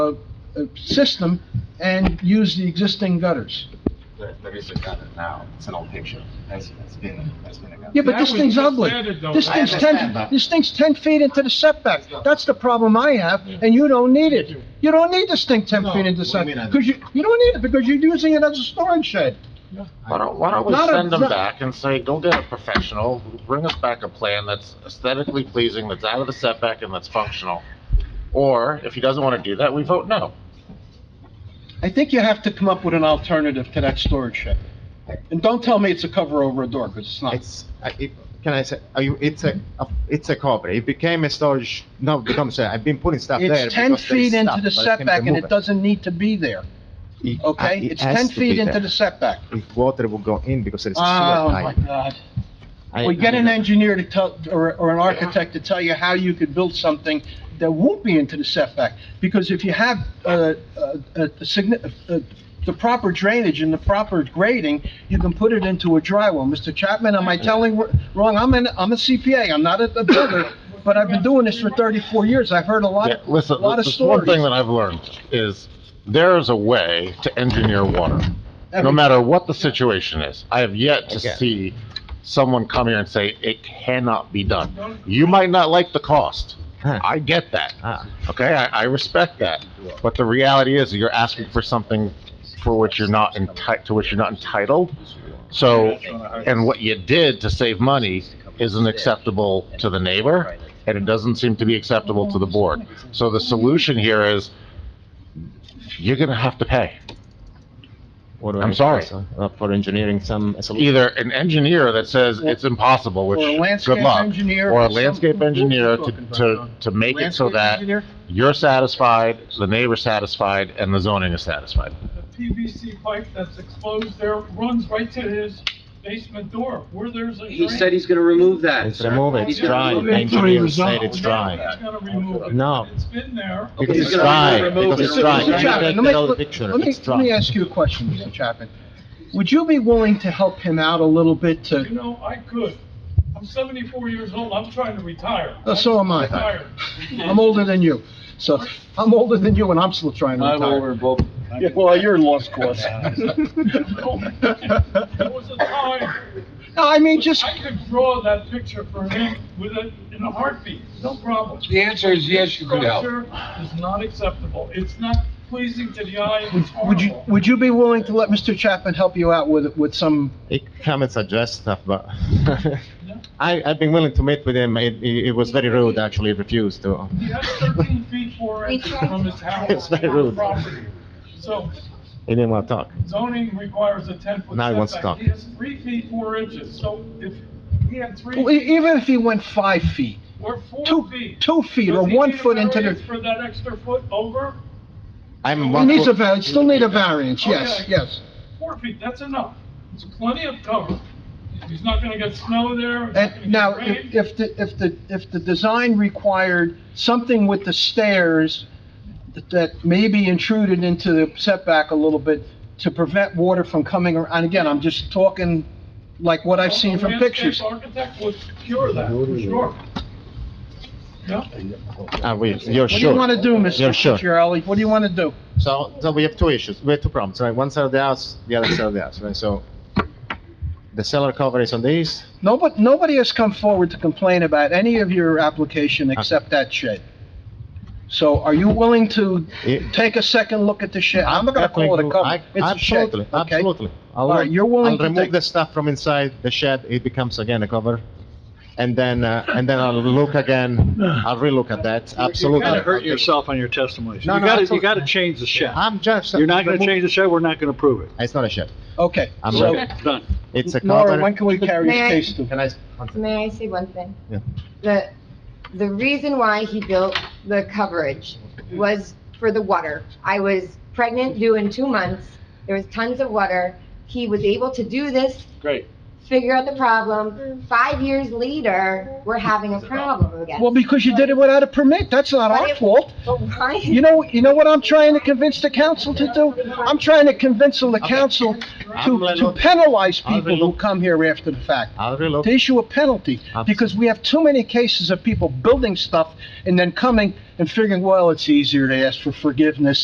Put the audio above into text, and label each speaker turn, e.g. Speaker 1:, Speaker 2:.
Speaker 1: uh, system and use the existing gutters.
Speaker 2: There, there is a gutter now, it's an old picture, that's, that's been, that's been a gutter.
Speaker 1: Yeah, but this
Speaker 3: That was
Speaker 1: thing's
Speaker 3: just
Speaker 1: ugly.
Speaker 3: added, though.
Speaker 1: This
Speaker 3: I
Speaker 1: thing's
Speaker 2: understand,
Speaker 1: ten,
Speaker 2: but-
Speaker 1: this thing's ten feet into the setback. That's the problem I have, and you don't need it. You don't need this thing ten
Speaker 2: No,
Speaker 1: feet into the
Speaker 2: what do you mean I
Speaker 1: setback, because you, you don't need it, because you're using it as a storage shed.
Speaker 4: Why don't, why don't we
Speaker 1: Not a-
Speaker 4: send them
Speaker 1: not-
Speaker 4: back and say, go get a professional, bring us back a plan that's aesthetically pleasing, that's out of the setback and that's functional? Or if he doesn't want to do that, we vote no.
Speaker 1: I think you have to come up with an alternative to that storage shed. And don't tell me it's a cover over a door, because it's not.
Speaker 2: It's, I- it- can I say, are you, it's a, a- it's a cover, it became a storage, now it becomes, a- I've been putting stuff there.
Speaker 1: It's ten
Speaker 2: because there is
Speaker 1: feet into
Speaker 2: stuff,
Speaker 1: the
Speaker 2: but
Speaker 1: setback,
Speaker 2: I can
Speaker 1: and
Speaker 2: remove
Speaker 1: it doesn't need to be there,
Speaker 2: It- uh,
Speaker 1: okay?
Speaker 2: it
Speaker 1: It's
Speaker 2: has
Speaker 1: ten
Speaker 2: to be
Speaker 1: feet into
Speaker 2: there.
Speaker 1: the setback.
Speaker 2: If water will go in because there is a sewer
Speaker 1: Oh, my
Speaker 2: pipe.
Speaker 1: God.
Speaker 2: I- uh,
Speaker 1: Well, get
Speaker 2: I-
Speaker 1: an engineer to tell, or, or an architect to tell you how you could build something that won't be into the setback. Because if you have, uh, uh, a signi- uh, the proper drainage and the proper grading, you can put it into a dry well. Mr. Chapman, am I telling wr- wrong? I'm an, I'm a CPA, I'm not a a builder, but I've been doing this for thirty-four years. I've heard a lot,
Speaker 4: Yeah,
Speaker 1: of- a
Speaker 4: Listen,
Speaker 1: lot of
Speaker 4: this one
Speaker 1: stories.
Speaker 4: thing that I've learned is there is a way to engineer water, no
Speaker 1: Every-
Speaker 4: matter what the situation is. I have yet to
Speaker 2: Okay.
Speaker 4: see someone come here and say, it cannot be done. You might not like the cost.
Speaker 2: Huh.
Speaker 4: I get that.
Speaker 2: Ah.
Speaker 4: Okay, I, I respect that, but the reality is, that you're asking for something for which you're not entitled, to which you're not entitled. So, and what you did to save money isn't acceptable to the neighbor, and it doesn't seem to be acceptable to the board. So the solution here is, you're gonna have to pay.
Speaker 2: What do I
Speaker 4: I'm
Speaker 2: need
Speaker 4: sorry.
Speaker 2: also, uh, For engineering some, a solution.
Speaker 4: Either an engineer that says it's impossible, which,
Speaker 1: Or a landscape
Speaker 4: good luck,
Speaker 1: engineer.
Speaker 4: or a
Speaker 1: some-
Speaker 4: landscape
Speaker 1: What are you
Speaker 4: engineer to,
Speaker 1: talking about,
Speaker 4: to,
Speaker 1: John?
Speaker 4: to make it so
Speaker 1: Landscape
Speaker 4: that
Speaker 1: engineer?
Speaker 4: you're satisfied, the neighbor's satisfied, and the zoning is satisfied.
Speaker 3: The PVC pipe that's exposed there runs right to his basement door, where there's a drain.
Speaker 5: He said he's gonna remove that.
Speaker 2: It's removed, it's
Speaker 5: He's gonna
Speaker 2: dry,
Speaker 5: remove it.
Speaker 2: engineer said it's
Speaker 3: Now
Speaker 2: dry.
Speaker 3: He's gonna remove it.
Speaker 2: No.
Speaker 3: It's been there.
Speaker 2: Because
Speaker 5: He's
Speaker 2: it's
Speaker 5: gonna
Speaker 2: dry,
Speaker 5: remove
Speaker 2: because
Speaker 5: it.
Speaker 2: it's dry.
Speaker 5: Mr.
Speaker 2: Can you
Speaker 1: Chapman,
Speaker 2: take
Speaker 1: let me-
Speaker 2: it out of the
Speaker 1: let-
Speaker 2: picture?
Speaker 1: Let me,
Speaker 2: It's
Speaker 1: let
Speaker 2: dry.
Speaker 1: me ask you a question, Mr. Chapman. Would you be willing to help him out a little bit
Speaker 3: You
Speaker 1: to,
Speaker 3: know, I could. I'm seventy-four years old, I'm trying to retire.
Speaker 1: Oh, so am I.
Speaker 3: Retired.
Speaker 1: I'm older than you, so, I'm older than you and I'm still trying to retire. Yeah, Well, you're in lost cause.
Speaker 3: There was a time,
Speaker 1: No, I mean, just,
Speaker 3: I could draw that picture for him with a, in a heartbeat, no problem.
Speaker 6: The answer is yes, you could help.
Speaker 3: Structure is not acceptable, it's not pleasing to the eye, it's
Speaker 1: would you,
Speaker 3: horrible.
Speaker 1: would you be willing to let Mr. Chapman help you out with, with some,
Speaker 2: He come and suggest stuff, but I, I've been willing to meet with him. It, it it was very rude, actually, he refused to.
Speaker 3: He has thirteen feet four
Speaker 7: We
Speaker 3: inches
Speaker 7: tried
Speaker 3: from his
Speaker 2: It's
Speaker 3: house
Speaker 2: very
Speaker 3: to the
Speaker 2: rude.
Speaker 3: property. So
Speaker 2: He didn't want to talk.
Speaker 3: zoning requires a ten foot
Speaker 2: Now he wants to
Speaker 3: setback,
Speaker 2: talk.
Speaker 3: he has three feet four inches, so if he had
Speaker 1: well,
Speaker 3: three
Speaker 1: e- even if he went five feet,
Speaker 3: or four
Speaker 1: two,
Speaker 3: feet.
Speaker 1: two feet or
Speaker 3: does he
Speaker 1: one
Speaker 3: need a
Speaker 1: foot into
Speaker 3: variance
Speaker 1: the,
Speaker 3: For that extra foot over,
Speaker 2: I'm
Speaker 1: he
Speaker 2: one
Speaker 1: needs a,
Speaker 2: foot,
Speaker 1: var- still need a variance, yes,
Speaker 3: Okay.
Speaker 1: yes.
Speaker 3: four feet, that's enough, it's plenty of cover. He's not gonna get snow there, he's not gonna
Speaker 1: And now,
Speaker 3: get rain.
Speaker 1: if if the, if the, if the design required something with the stairs that maybe intruded into the setback a little bit to prevent water from coming, ar- and again, I'm just talking like what I've seen from pictures.
Speaker 3: A landscape architect would cure that, for sure. Yeah?
Speaker 2: are we, you're
Speaker 1: What do you
Speaker 2: sure?
Speaker 1: want to do, Mr.
Speaker 2: Yeah, sure.
Speaker 1: Cucciarelli? What do you want to do?
Speaker 2: So, so we have two issues, we have two problems, right? One side of the house, the other side of the house, right? So the cellar cover is on the east,
Speaker 1: Nobody, nobody has come forward to complain about any of your application except that shed. So are you willing to
Speaker 2: Yeah.
Speaker 1: take a second look at the shed? I'm not going to call it a cover.
Speaker 2: I-
Speaker 1: It's a shed,
Speaker 2: Absolutely,
Speaker 1: okay?
Speaker 2: absolutely. I'll,
Speaker 1: All right, you're willing
Speaker 2: I'll
Speaker 1: to
Speaker 2: remove
Speaker 1: take-
Speaker 2: the stuff from inside the shed, it becomes again a cover. And then, uh, and then I'll look again, I'll relook at that, absolutely.
Speaker 8: You gotta hurt yourself on your testimonies.
Speaker 2: No,
Speaker 8: You
Speaker 2: no,
Speaker 8: gotta,
Speaker 2: absolutely.
Speaker 8: you gotta change the shed.
Speaker 2: I'm just.
Speaker 8: You're not gonna
Speaker 2: remove-
Speaker 8: change the shed, we're not gonna prove it.
Speaker 2: It's not a shed,
Speaker 1: Okay,
Speaker 2: I'm
Speaker 1: so,
Speaker 2: ready.
Speaker 8: Done.
Speaker 2: it's a
Speaker 1: Nora,
Speaker 2: cover.
Speaker 1: when can we carry
Speaker 7: May
Speaker 1: his
Speaker 7: I-
Speaker 1: case to?
Speaker 2: Can I,
Speaker 7: May I say one thing?
Speaker 2: Yeah.
Speaker 7: The, the reason why he built the coverage was for the water. I was pregnant, due in two months, there was tons of water. He was able to do this.
Speaker 8: Great.
Speaker 7: Figure out the problem. Five years later, we're having a problem again.
Speaker 1: Well, because you did it without a permit, that's not our
Speaker 7: But it-
Speaker 1: fault.
Speaker 7: But why-
Speaker 1: You know, you know what I'm trying to convince the council to do? I'm trying to convince the council
Speaker 2: I'm
Speaker 1: to,
Speaker 2: gonna
Speaker 1: to
Speaker 2: look-
Speaker 1: penalize
Speaker 2: I'm
Speaker 1: people who
Speaker 2: gonna-
Speaker 1: come here after the fact,
Speaker 2: I'll
Speaker 1: to
Speaker 2: relook,
Speaker 1: issue a penalty, because we have too many cases of people building stuff and then coming and figuring, well, it's easier to ask for forgiveness